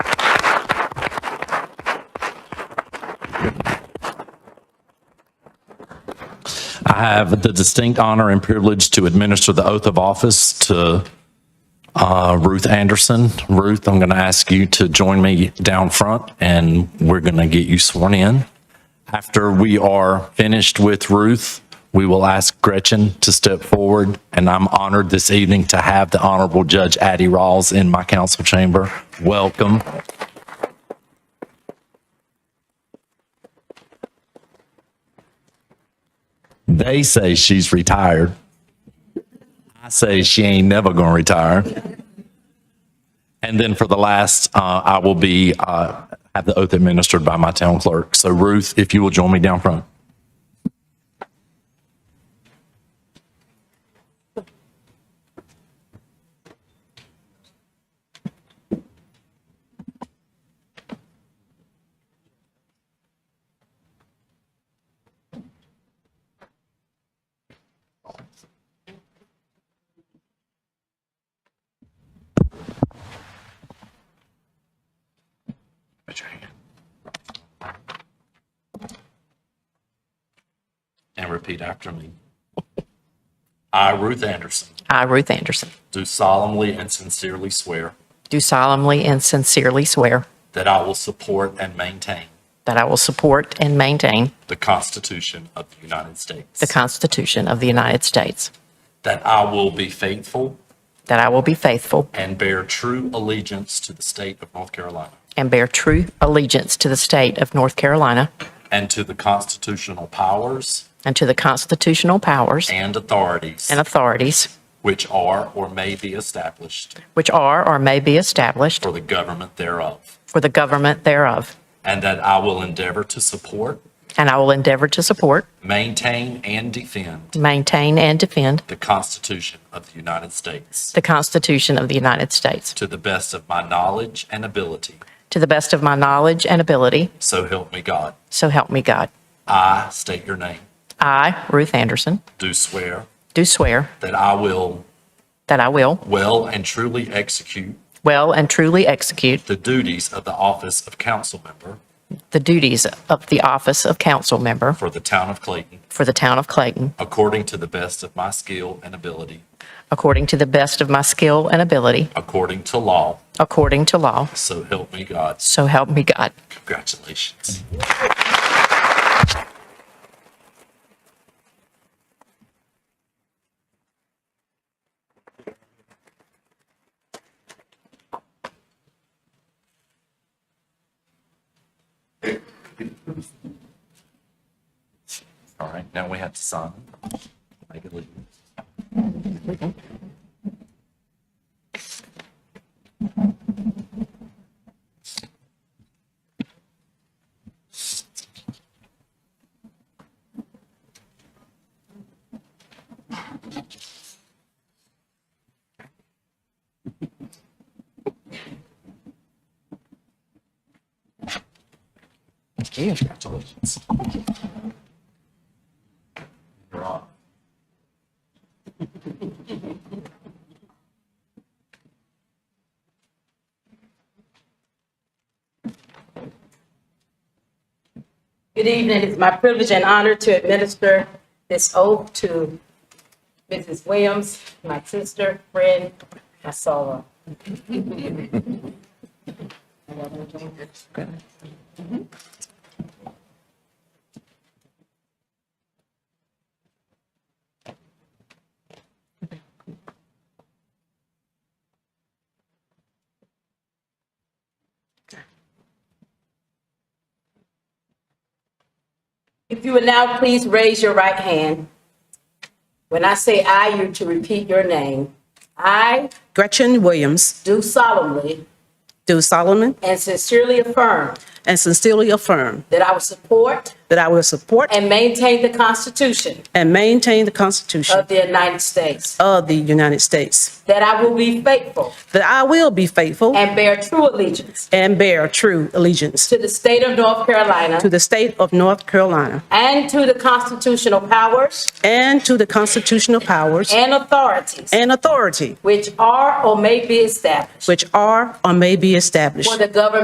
I have the distinct honor and privilege to administer the oath of office to uh, Ruth Anderson. Ruth, I'm going to ask you to join me down front, and we're going to get you sworn in. After we are finished with Ruth, we will ask Gretchen to step forward, and I'm honored this evening to have the Honorable Judge Addie Rawls in my council chamber. Welcome. They say she's retired. I say she ain't never gonna retire. And then for the last, uh, I will be, uh, have the oath administered by my town clerk. So Ruth, if you will join me down front. And repeat after me. I, Ruth Anderson, I, Ruth Anderson, do solemnly and sincerely swear do solemnly and sincerely swear that I will support and maintain that I will support and maintain the Constitution of the United States, the Constitution of the United States, that I will be faithful that I will be faithful and bear true allegiance to the state of North Carolina and bear true allegiance to the state of North Carolina and to the constitutional powers and to the constitutional powers and authorities and authorities which are or may be established which are or may be established for the government thereof, for the government thereof, and that I will endeavor to support, and I will endeavor to support, maintain, and defend maintain, and defend the Constitution of the United States the Constitution of the United States to the best of my knowledge and ability. to the best of my knowledge and ability, So help me God. so help me God. I state your name. I, Ruth Anderson, Do swear do swear that I will that I will well and truly execute Well and truly execute the duties of the office of council member the duties of the office of council member for the town of Clayton for the town of Clayton, according to the best of my skill and ability, according to the best of my skill and ability, according to law. according to law. So help me God. So help me God. Congratulations. All right, now we have to sign. Make it legal. Congratulations. You're on. Good evening. It's my privilege and honor to administer this oath to Mrs. Williams, my sister, friend, my soul. If you would now please raise your right hand. When I say "I," you to repeat your name. I Gretchen Williams, do solemnly do solemnly and sincerely affirm and sincerely affirm that I will support that I will support and maintain the Constitution and maintain the Constitution of the United States, of the United States, that I will be faithful that I will be faithful and bear true allegiance and bear true allegiance to the state of North Carolina to the state of North Carolina and to the constitutional powers and to the constitutional powers and authorities and authority which are or may be established which are or may be established for the government